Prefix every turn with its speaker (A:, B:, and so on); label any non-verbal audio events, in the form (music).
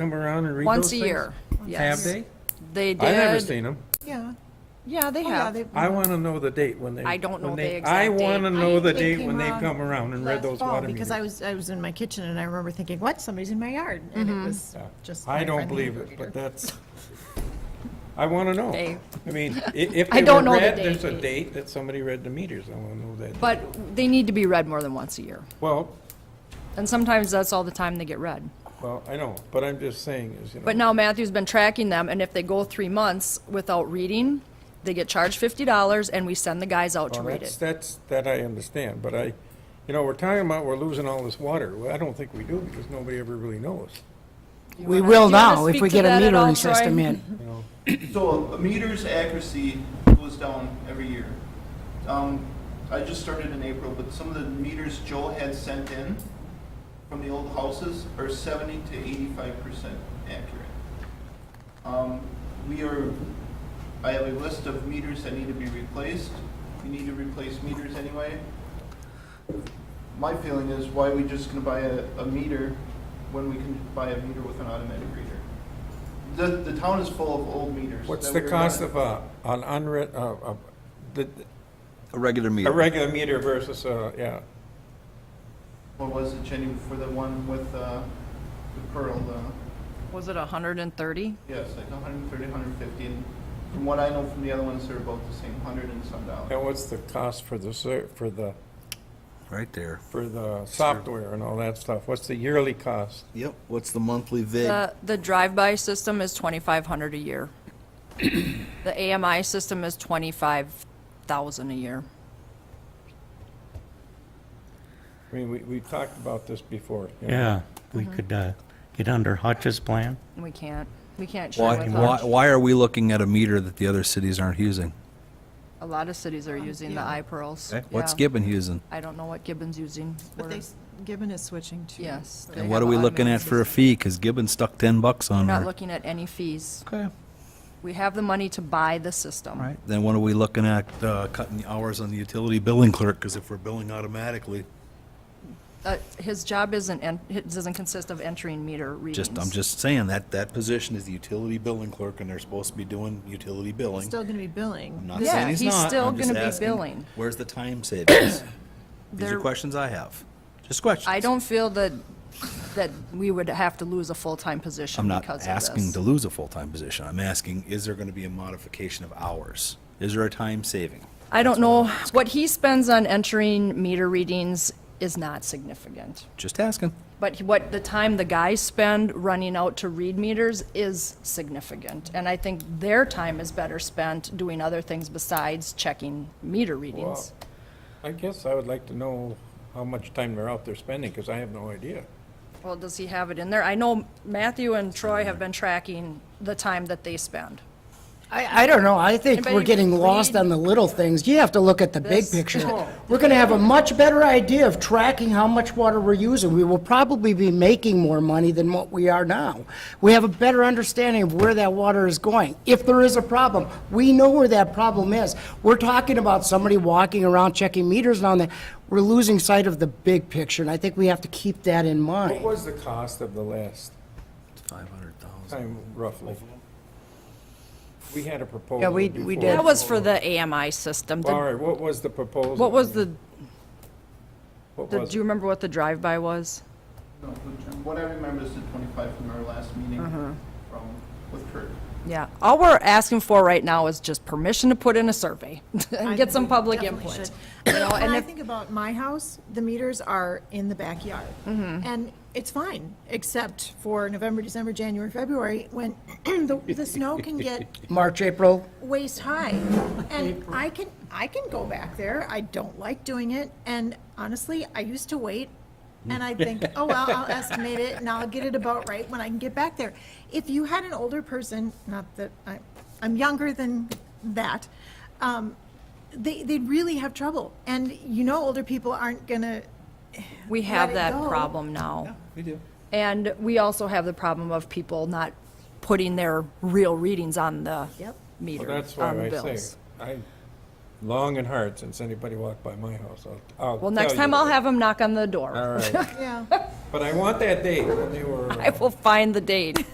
A: come around and read
B: Once
A: those
B: a
A: things?
B: year, yes.
A: Have they?
B: They did.
A: I've never seen them.
C: Yeah.
B: Yeah, they
C: Oh, yeah,
B: have.
C: they-
A: I want to know the date when they.
B: I don't know
A: when
B: the
A: they-
B: exact
A: I want to
B: date.
A: know the
C: They
A: date
C: came
A: when they've
C: around
A: come around and read
C: last
A: those
C: fall,
A: water meters.
C: Because I was, I was in my kitchen and I remember thinking, what, somebody's in my yard, and
B: Mm-hmm.
C: it was
A: Yeah.
C: just.
A: I
C: my
A: don't
C: friend the
A: believe it,
C: neighbor.
A: but
B: (laughs)
A: that's, I want to know.
B: They-
A: I mean,
B: (laughs)
A: i- if
B: I
A: they were
B: don't know the
A: read, there's a
B: date.
A: date that somebody read the meters, I want to know that.
B: But they need to be read more than once a year.
A: Well,
B: And sometimes that's all the time they get read.
A: well, I know, but I'm just saying is, you know.
B: But now Matthew's been tracking them, and if they go three months without reading, they get charged fifty dollars, and we send the guys out to
A: Well,
B: read
A: that's,
B: it.
A: that's, that I understand, but I, you know, we're talking about we're losing all this water. Well, I don't think we do, because nobody ever really knows,
D: We will
B: Do you wanna
D: now if we
B: speak to
D: get a
B: that at all,
D: metering
B: Troy?
D: system in.
A: you know.
E: (clears throat) So a meter's accuracy goes down every year. Um, I just started in April, but some of the meters Joe had sent in from the old houses are seventy to eighty-five percent accurate. Um, we are, I have a list of meters that need to be replaced. We need to replace meters anyway. My feeling is why are we just gonna buy a, a meter when we can buy a meter with an automatic reader? The, the town is full of old meters.
A: What's
E: that
A: the
E: we're
A: cost
E: not-
A: of a, an unread, uh, uh, the,
F: A regular
A: a
F: meter.
A: regular meter versus a, yeah,
E: What was it, Jenny, for the one with, uh, the Pearl, uh, the,
B: Was it hundred and thirty?
E: yes, like a hundred and thirty, hundred and fifty, and from what I know from the other ones, they're about the same, hundred and some dollars.
A: and what's the cost for the, ser- for the,
F: right there.
A: for the software and all that stuff? What's the yearly cost?
F: Yep. What's the monthly VIG?
B: The, the drive-by system is twenty-five hundred a year. (coughs) The AMI system is twenty-five thousand a year.
A: I mean, we, we talked about this before. you know.
G: Yeah, we could uh, get under Hutch's plan.
B: And We can't, we can't share
F: why,
B: with
F: why,
B: them.
F: why are we looking at a meter that the other cities aren't using?
B: A lot of cities are using the iPearls.
F: Okay, What's
B: yeah.
F: Gibbon using?
B: I don't know what Gibbon's using.
C: But
B: We're-
C: they, s- Gibbon is switching to.
B: Yes. they
F: And what
B: have
F: are we
B: an
F: looking
B: automated
F: at for a
B: system.
F: fee? Because Gibbon stuck 10 bucks on
B: We're not
F: her.
B: looking at any fees.
F: Okay.
B: We have the money to buy the system.
F: All right. Then what are we looking at uh, cutting the hours on the utility billing clerk? Because if we're billing automatically,
B: Uh, His job isn't, en- it doesn't consist of entering meter readings.
F: just I'm just saying that that position is the utility billing clerk, and they're supposed to be doing utility billing.
C: Still gonna be billing.
F: I'm not
B: Yeah,
F: saying he's,
B: he's
F: not.
B: still
F: I'm just
B: gonna be
F: asking,
B: billing.
F: Where's the
B: (coughs)
F: time savings? These
B: There-
F: are questions I have. Just questions.
B: I don't feel that, that we would have to lose a full-time position
F: I'm not
B: because of
F: asking
B: this.
F: to lose a full-time position. I'm asking, is there going to be a modification of hours? Is there a time saving?
B: I don't know, what he spends on entering meter readings is not significant.
F: Just asking.
B: But he- what, the time the guys spend running out to read meters is significant. And I think their time is better spent doing other things besides checking meter
A: Well,
B: readings.
A: I guess I would like to know how much time they're out there spending, because I have no idea.
B: Well, does he have it in there? I know Matthew and Troy have been tracking the time that they spend.
D: I, I don't know, I think we're
B: Anybody
D: getting lost
B: read-
D: on the little things. You have to look at the big
B: This-
D: picture.
B: Oh.
D: We're gonna have a much better idea of tracking how much water we're using. We will probably be making more money than what we are now. We have a better understanding of where that water is going. If there is a problem, we know where that problem is. We're talking about somebody walking around checking meters and all that. We're losing sight of the big picture, and I think we have to keep that in mind.
A: What was the cost of the last
F: Five hundred thousand.
A: time roughly? We had a proposal.
C: Yeah, we- we
A: before.
C: did.
B: That was for the AMI system.
A: All
B: The-
A: right, what was the proposal?
B: What was the,
A: What
B: the-
A: was
B: do you
A: it?
B: remember what the drive-by was?
E: No, but What I remember is the twenty-five from our last meeting from, with Kurt.
B: Yeah, all we're asking for right now is just permission to put in a survey (laughs)
C: I
B: and get
C: think
B: some
C: we
B: public
C: definitely
B: input.
C: should.
B: You know,
C: When
B: and
C: I
B: if,
C: think about my house, the meters are in the backyard.
B: Mm-hmm.
C: And it's fine, except for November, December, January, February, when (clears throat) the, the snow can
A: (laughs)
C: get
D: March, April,
C: waist high. And I can, I can go back there. I don't like doing it. And honestly, I used to wait and I think, oh, well, I'll estimate it and I'll get it about right when I can get back there. If you had an older person, not that I, I'm younger than that, um, they, they'd really have trouble. And you know, older people aren't gonna,
B: we have
C: it
B: that
C: go.
B: problem now.
F: We do.
B: And we also have the problem of people not putting their real readings on the
C: Yep.
A: Well,
B: meter,
A: That's
B: on
A: why
B: the
A: I
B: bills.
A: say, I, long and hard since anybody walked by my house. I'll- I'll
B: Well, next
A: tell
B: time
A: you.
B: I'll have them knock on the
A: All
B: door.
A: right,
C: yeah.
A: but I want that date when they were.
B: I will find the date.